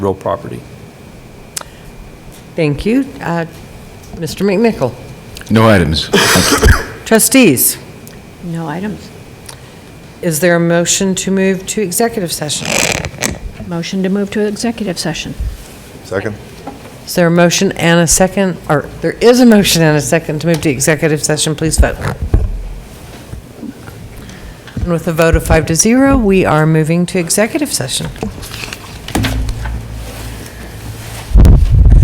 real property. Thank you. Uh, Mr. McNichol? No items. Trustees, No items. is there a motion to move to executive session? Motion to move to executive session. Second? Is there a motion and a second, or there is a motion and a second to move to executive session, please vote. And with a vote of five to zero, we are moving to executive session.